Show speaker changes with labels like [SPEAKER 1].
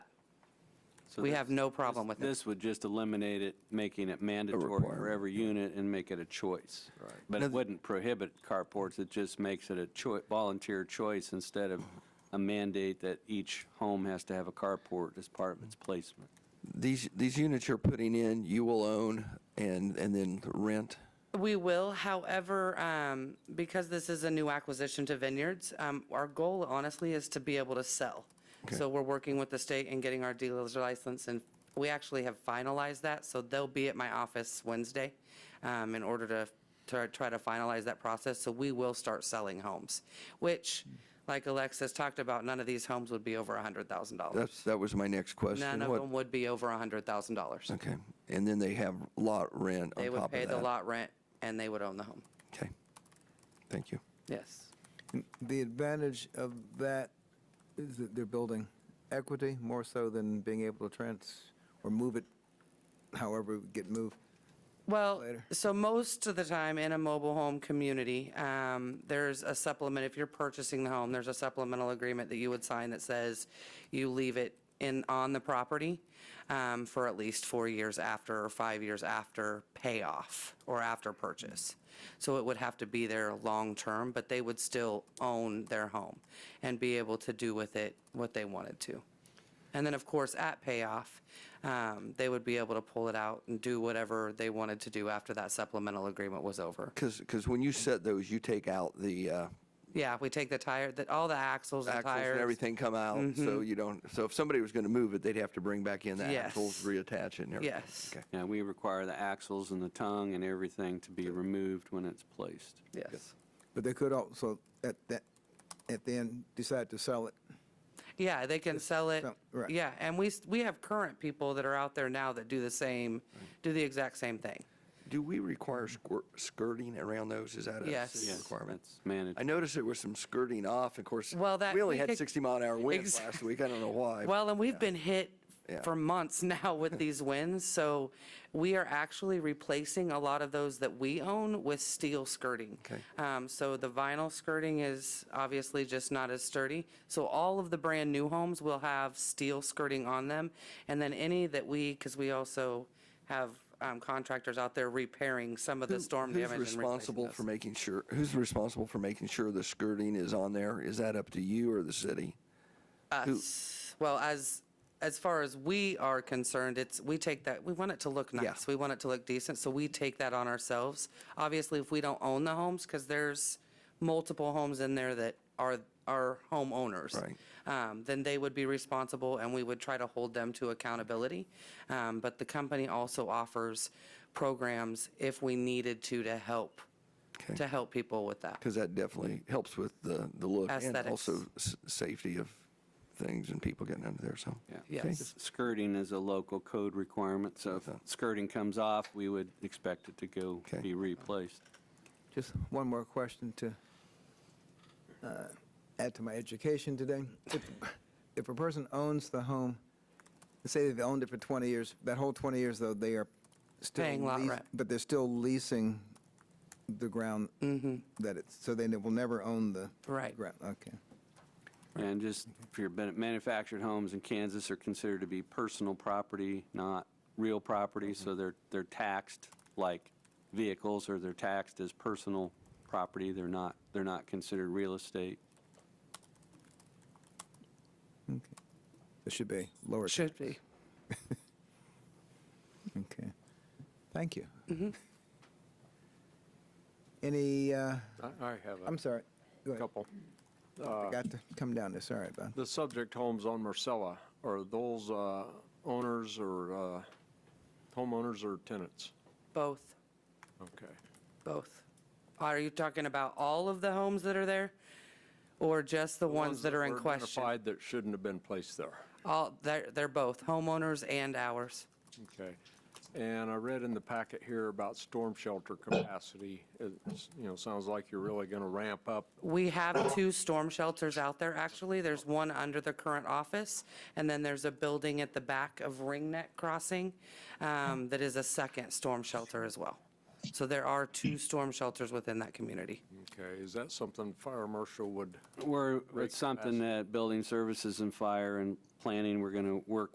[SPEAKER 1] So
[SPEAKER 2] We
[SPEAKER 1] this-
[SPEAKER 2] have no problem with it.
[SPEAKER 1] This would just eliminate it, making it mandatory for
[SPEAKER 3] requirement.
[SPEAKER 1] every unit and make it a choice. Right. But
[SPEAKER 3] Now
[SPEAKER 1] it
[SPEAKER 3] th-
[SPEAKER 1] wouldn't prohibit carports, it just makes it a choi, volunteer choice instead of a mandate that each home has to have a carport as part of its placement.
[SPEAKER 3] These, these units you're putting in, you will own and, and then rent?
[SPEAKER 2] We will, however, um, because this is a new acquisition to vineyards, um, our goal honestly is to be able to sell.
[SPEAKER 3] Okay.
[SPEAKER 2] So we're working with the state and getting our dealer's license, and we actually have finalized that, so they'll be at my office Wednesday um, in order to, to try to finalize that process, so we will start selling homes, which, like Alexis talked about, none of these homes would be over $100,000.
[SPEAKER 3] That's, that was my next question.
[SPEAKER 2] None of
[SPEAKER 3] What-
[SPEAKER 2] them would be over $100,000.
[SPEAKER 3] Okay, and then they have lot rent on
[SPEAKER 2] They
[SPEAKER 3] top of
[SPEAKER 2] would
[SPEAKER 3] that?
[SPEAKER 2] pay the lot rent, and they would own the home.
[SPEAKER 3] Okay, thank you.
[SPEAKER 2] Yes.
[SPEAKER 4] The advantage of that is that they're building equity more so than being able to trans, or move it however it get moved.
[SPEAKER 2] Well,
[SPEAKER 4] Later.
[SPEAKER 2] so most of the time in a mobile home community, um, there's a supplement, if you're purchasing the home, there's a supplemental agreement that you would sign that says you leave it in, on the property um, for at least four years after or five years after payoff or after purchase. So it would have to be there long-term, but they would still own their home and be able to do with it what they wanted to. And then, of course, at payoff, um, they would be able to pull it out and do whatever they wanted to do after that supplemental agreement was over.
[SPEAKER 3] Because, when you set those, you take out the uh,
[SPEAKER 2] Yeah, we take the tire, that, all the axles and
[SPEAKER 3] axles
[SPEAKER 2] tires. Mm-hmm.
[SPEAKER 3] and everything come out, so you don't, so if somebody was going to move it, they'd have to bring back in the
[SPEAKER 2] Yes.
[SPEAKER 3] axles, reattach it and everything?
[SPEAKER 2] Yes.
[SPEAKER 3] Okay.
[SPEAKER 1] Yeah, we require the axles and the tongue and everything to be removed when it's placed.
[SPEAKER 2] Yes.
[SPEAKER 4] But they could also, at that, at the end, decide to sell it.
[SPEAKER 2] Yeah, they can sell it.
[SPEAKER 4] so- right.
[SPEAKER 2] Yeah, and we, s- we have current people that are out there now that do the same, do the exact same thing.
[SPEAKER 3] Do we require squir- skirting around those? Is that a
[SPEAKER 2] Yes.
[SPEAKER 3] city
[SPEAKER 1] Yes,
[SPEAKER 3] requirement?
[SPEAKER 1] that's managed.
[SPEAKER 3] I noticed there was some skirting off, of course.
[SPEAKER 2] Well, that-
[SPEAKER 3] We only
[SPEAKER 2] we
[SPEAKER 3] had
[SPEAKER 2] could-
[SPEAKER 3] 60 mile an hour winds
[SPEAKER 2] Exact-
[SPEAKER 3] last week, I don't know why.
[SPEAKER 2] Well, and we've been hit
[SPEAKER 3] Yeah.
[SPEAKER 2] for months now with these winds, so we are actually replacing a lot of those that we own with steel skirting.
[SPEAKER 3] Okay.
[SPEAKER 2] Um, So the vinyl skirting is obviously just not as sturdy. So all of the brand-new homes will have steel skirting on them, and then any that we, because we also have um, contractors out there repairing some of the
[SPEAKER 3] Who-
[SPEAKER 2] storm damage and
[SPEAKER 3] Who's responsible for
[SPEAKER 2] replacing those.
[SPEAKER 3] making sure, who's responsible for making sure the skirting is on there? Is that up to you or the city? Who-
[SPEAKER 2] Well, as, as far as we are concerned, it's, we take that, we want it to look
[SPEAKER 3] Yeah.
[SPEAKER 2] nice. We want it to look decent, so we take that on ourselves. Obviously, if we don't own the homes, because there's multiple homes in there that are, are homeowners.
[SPEAKER 3] Right.
[SPEAKER 2] Um, then they would be responsible and we would try to hold them to accountability. Um, but the company also offers programs if we needed to, to help,
[SPEAKER 3] Okay.
[SPEAKER 2] to help people with that.
[SPEAKER 3] because that definitely helps with the, the look and
[SPEAKER 2] Aesthetics.
[SPEAKER 3] also s- safety of things and people getting under there, so.
[SPEAKER 1] Yeah.
[SPEAKER 3] okay.
[SPEAKER 2] Yes.
[SPEAKER 1] Skirting is a local code requirement, so if
[SPEAKER 3] Okay.
[SPEAKER 1] skirting comes off, we would expect it to go
[SPEAKER 3] Okay.
[SPEAKER 1] be replaced.
[SPEAKER 4] Just one more question to uh, add to my education today. If- If a person owns the home, let's say they've owned it for 20 years, that whole 20 years, though, they are still.
[SPEAKER 2] Paying lot
[SPEAKER 4] leas-
[SPEAKER 2] rent.
[SPEAKER 4] But they're still leasing the ground that it's, so they will never own the.
[SPEAKER 2] Mm-hmm. Right.
[SPEAKER 4] ground. Okay.
[SPEAKER 1] And just for your benefit, manufactured homes in Kansas are considered to be personal property, not real property, so they're, they're taxed like vehicles, or they're taxed as personal property, they're not, they're not considered real estate.
[SPEAKER 4] It should be lower.
[SPEAKER 2] Should be.
[SPEAKER 4] Okay. Thank you.
[SPEAKER 2] Mm-hmm.
[SPEAKER 4] Any, uh,
[SPEAKER 5] I- I have
[SPEAKER 4] I'm
[SPEAKER 5] a
[SPEAKER 4] sorry. Go ahead.
[SPEAKER 5] couple.
[SPEAKER 4] Forgot to come down there. Sorry, Bob.
[SPEAKER 5] The subject homes on Marcella, are those uh, owners or uh, homeowners or tenants?
[SPEAKER 2] Both.
[SPEAKER 5] Okay.
[SPEAKER 2] Both. Are you talking about all of the homes that are there? Or just the ones that are in
[SPEAKER 5] were
[SPEAKER 2] question?
[SPEAKER 5] Identified that shouldn't have been placed there.
[SPEAKER 2] All, they're, they're both homeowners and ours.
[SPEAKER 5] Okay. And I read in the packet here about storm shelter capacity. It's, you know, sounds like you're really going to ramp up.
[SPEAKER 2] We have two storm shelters out there, actually. There's one under the current office, and then there's a building at the back of Ring Neck Crossing um, that is a second storm shelter as well. So there are two storm shelters within that community.
[SPEAKER 5] Okay, is that something fire marshal would?
[SPEAKER 1] We're,
[SPEAKER 5] Great
[SPEAKER 1] it's something
[SPEAKER 5] capacity.
[SPEAKER 1] that building services and fire and planning, we're going to work